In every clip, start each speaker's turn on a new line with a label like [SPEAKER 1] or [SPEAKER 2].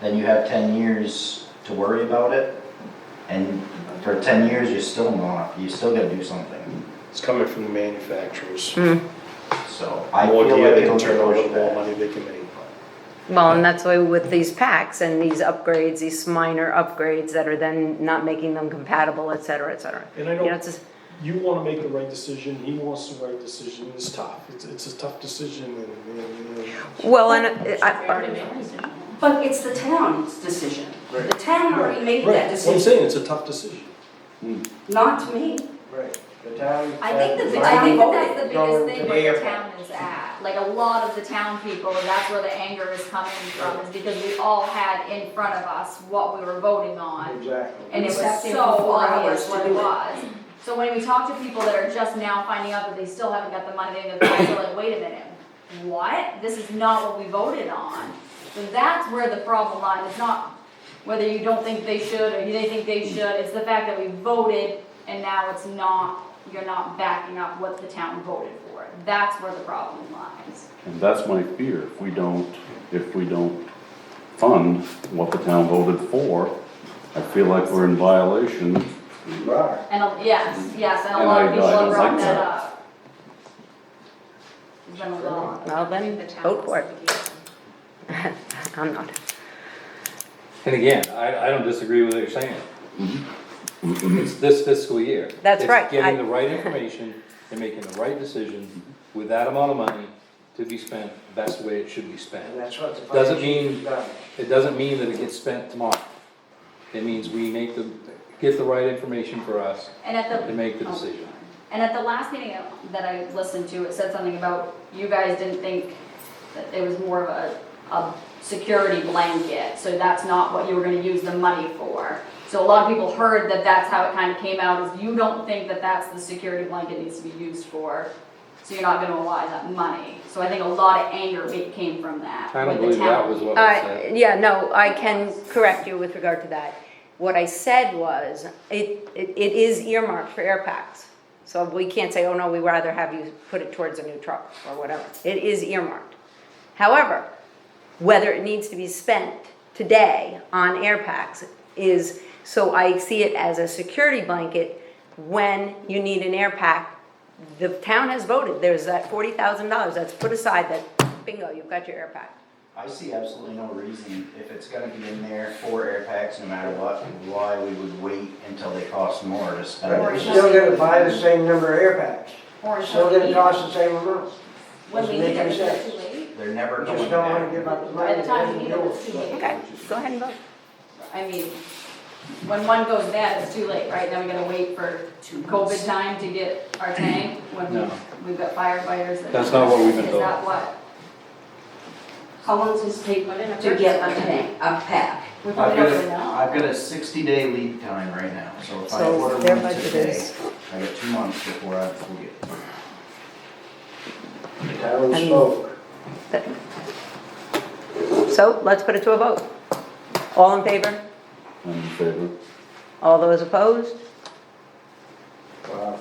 [SPEAKER 1] then you have ten years to worry about it. And for ten years, you're still not, you still gotta do something,
[SPEAKER 2] It's coming from the manufacturers.
[SPEAKER 3] Mm.
[SPEAKER 1] so I feel
[SPEAKER 2] More
[SPEAKER 1] like
[SPEAKER 2] gear they
[SPEAKER 1] it'll
[SPEAKER 2] can
[SPEAKER 1] get
[SPEAKER 2] turn over, the
[SPEAKER 1] pushed
[SPEAKER 2] more
[SPEAKER 1] back.
[SPEAKER 2] money they can make.
[SPEAKER 3] Well, and that's why with these packs and these upgrades, these minor upgrades that are then not making them compatible, et cetera, et cetera.
[SPEAKER 4] And I
[SPEAKER 3] You know,
[SPEAKER 4] don't,
[SPEAKER 3] it's just,
[SPEAKER 4] you wanna make the right decision, he wants the right decision, it's tough, it's, it's a tough decision and, and, and.
[SPEAKER 3] well, and
[SPEAKER 5] We
[SPEAKER 3] I,
[SPEAKER 5] already made a decision.
[SPEAKER 6] But it's the town's decision. The town already made
[SPEAKER 4] Right,
[SPEAKER 6] that
[SPEAKER 4] What I'm
[SPEAKER 6] decision,
[SPEAKER 4] saying, it's a tough decision.
[SPEAKER 6] not to me.
[SPEAKER 7] Right, the town.
[SPEAKER 5] I think that, the-
[SPEAKER 6] Right.
[SPEAKER 5] uh, I think that that's the biggest
[SPEAKER 7] Going
[SPEAKER 5] thing
[SPEAKER 7] to
[SPEAKER 5] where the
[SPEAKER 7] the
[SPEAKER 5] town is at, like a lot of the town people, and that's where the anger is coming from, is because we all had in front of us what we were voting on,
[SPEAKER 7] Exactly.
[SPEAKER 5] and it was
[SPEAKER 6] Sat there
[SPEAKER 5] so
[SPEAKER 6] for four
[SPEAKER 5] obvious
[SPEAKER 6] hours to
[SPEAKER 5] what
[SPEAKER 6] do
[SPEAKER 5] it
[SPEAKER 6] it.
[SPEAKER 5] was. So when we talk to people that are just now finding out that they still haven't got the money, they're like, wait a minute, what? This is not what we voted on, so that's where the problem lies, it's not whether you don't think they should or they think they should, it's the fact that we voted and now it's not, you're not backing up what the town voted for. That's where the problem lies.
[SPEAKER 8] And that's my fear, if we don't, if we don't fund what the town voted for, I feel like we're in violation.
[SPEAKER 7] You are.
[SPEAKER 5] And, a- yes, yes, and a
[SPEAKER 8] And
[SPEAKER 5] lot of
[SPEAKER 8] I-
[SPEAKER 5] people
[SPEAKER 8] I
[SPEAKER 5] have
[SPEAKER 8] don't
[SPEAKER 5] brought
[SPEAKER 8] like
[SPEAKER 5] that
[SPEAKER 8] that.
[SPEAKER 5] up. There's been a lot.
[SPEAKER 3] well, then vote for it. I'm not.
[SPEAKER 9] And again, I, I don't disagree with what you're saying. It's this fiscal year.
[SPEAKER 3] That's right,
[SPEAKER 9] It's
[SPEAKER 3] I-
[SPEAKER 9] getting the right information and making the right decision with that amount of money to be spent the best way it should be
[SPEAKER 7] And
[SPEAKER 9] spent.
[SPEAKER 7] that's what the.
[SPEAKER 9] Doesn't
[SPEAKER 7] fire
[SPEAKER 9] mean-
[SPEAKER 7] chief's done.
[SPEAKER 9] It doesn't mean that it gets spent tomorrow. It means we make the, get the right information for us
[SPEAKER 5] And at the.
[SPEAKER 9] to make the
[SPEAKER 5] oh,
[SPEAKER 9] decision.
[SPEAKER 5] And at the last meeting that I listened to, it said something about you guys didn't think that it was more of a, a security blanket, so that's not what you were gonna use the money for. So a lot of people heard that that's how it kind of came out, is you don't think that that's the security blanket needs to be used for, so you're not gonna allow that money. So I think a lot of anger ma- came from that.
[SPEAKER 9] I don't
[SPEAKER 5] with
[SPEAKER 9] believe
[SPEAKER 5] the
[SPEAKER 9] that
[SPEAKER 5] town.
[SPEAKER 9] was what I
[SPEAKER 3] I,
[SPEAKER 9] said.
[SPEAKER 3] Uh, yeah, no, I can correct you with regard to that. What I said was, it, it it is earmarked for air packs. So we can't say, oh no, we'd rather have you put it towards a new truck or whatever. It is earmarked. However, whether it needs to be spent today on air packs is, so I see it as a security blanket when you need an air pack. The town has voted, there's that forty thousand dollars that's put aside that bingo, you've got your air pack.
[SPEAKER 1] I see absolutely no reason, if it's gonna be in there for air packs no matter what, why we would wait until they cost more to spend
[SPEAKER 7] But
[SPEAKER 1] it.
[SPEAKER 7] you're still gonna buy the same number of air packs,
[SPEAKER 5] Or
[SPEAKER 7] still
[SPEAKER 5] when we-
[SPEAKER 7] gonna cost the same amount.
[SPEAKER 5] When we
[SPEAKER 7] doesn't
[SPEAKER 5] need
[SPEAKER 7] make
[SPEAKER 5] it,
[SPEAKER 7] any
[SPEAKER 5] it's
[SPEAKER 7] sense.
[SPEAKER 5] too late.
[SPEAKER 1] They're never
[SPEAKER 7] You
[SPEAKER 1] going
[SPEAKER 7] just don't wanna give
[SPEAKER 1] back.
[SPEAKER 7] up the money.
[SPEAKER 5] By the time you need it, it's too late.
[SPEAKER 3] Okay, go ahead and vote.
[SPEAKER 5] I mean, when one goes bad, it's too late, right? Now we gotta wait for COVID time to get our tank, when
[SPEAKER 9] No.
[SPEAKER 5] we've got firefighters that.
[SPEAKER 9] That's not what we've been
[SPEAKER 5] Is
[SPEAKER 9] told.
[SPEAKER 5] that what?
[SPEAKER 6] How long does it take to get a tank, a pack?
[SPEAKER 5] We
[SPEAKER 1] I've got
[SPEAKER 5] probably don't really
[SPEAKER 1] a,
[SPEAKER 5] know.
[SPEAKER 1] I've got a sixty day lead time right now, so if I
[SPEAKER 3] So
[SPEAKER 1] order
[SPEAKER 3] their
[SPEAKER 1] one
[SPEAKER 3] budget
[SPEAKER 1] today,
[SPEAKER 3] is-
[SPEAKER 1] I got two months before I will get it.
[SPEAKER 7] The town
[SPEAKER 3] I mean-
[SPEAKER 7] spoke.
[SPEAKER 3] So let's put it to a vote. All in favor?
[SPEAKER 8] I'm in favor.
[SPEAKER 3] All those opposed?
[SPEAKER 7] Wow.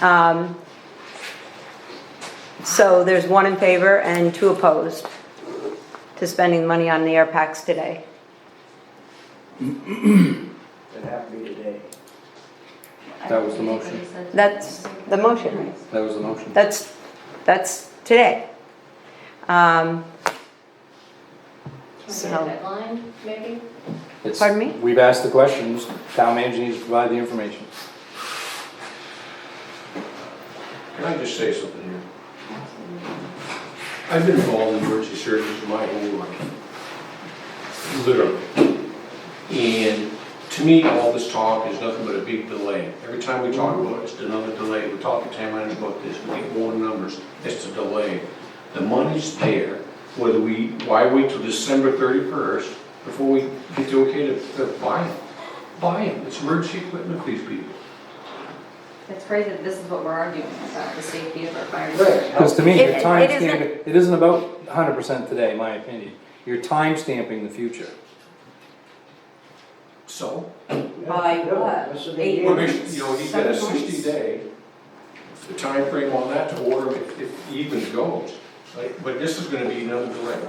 [SPEAKER 3] Um, So there's one in favor and two opposed to spending money on the air packs today.
[SPEAKER 7] It'd have to be today.
[SPEAKER 9] That was the motion.
[SPEAKER 3] That's the motion, right?
[SPEAKER 9] That was the motion.
[SPEAKER 3] That's, that's today. Um, So-
[SPEAKER 5] Deadline, maybe?
[SPEAKER 9] It's-
[SPEAKER 3] pardon me?
[SPEAKER 9] We've asked the questions, town manager needs to provide the information.
[SPEAKER 10] Can I just say something here? I've been involved in emergency services my whole life, literally. And to me, all this talk is nothing but a big delay. Every time we talk about it, it's another delay. We talk to town managers about this, we get more numbers, it's a delay. The money's there, whether we, why wait till December 31st before we get the okay to to buy it? Buy it, it's emergency equipment for these people.
[SPEAKER 5] It's crazy that this is what we're arguing about, the safety of our
[SPEAKER 7] Right.
[SPEAKER 5] firefighters.
[SPEAKER 9] Because to me,
[SPEAKER 3] It-
[SPEAKER 9] your
[SPEAKER 3] it
[SPEAKER 9] time
[SPEAKER 3] isn't-
[SPEAKER 9] stamping, it isn't about hundred percent today, in my opinion. You're time stamping the future.
[SPEAKER 10] So,
[SPEAKER 7] Yeah,
[SPEAKER 6] By
[SPEAKER 7] yeah,
[SPEAKER 6] what?
[SPEAKER 7] this would be
[SPEAKER 6] Eight
[SPEAKER 7] it.
[SPEAKER 10] Well,
[SPEAKER 6] months?
[SPEAKER 10] there's, you know, he's got a
[SPEAKER 6] Seven months?
[SPEAKER 10] sixty day, the timeframe on that to order if, if he even goes. Like, But this is gonna be another delay.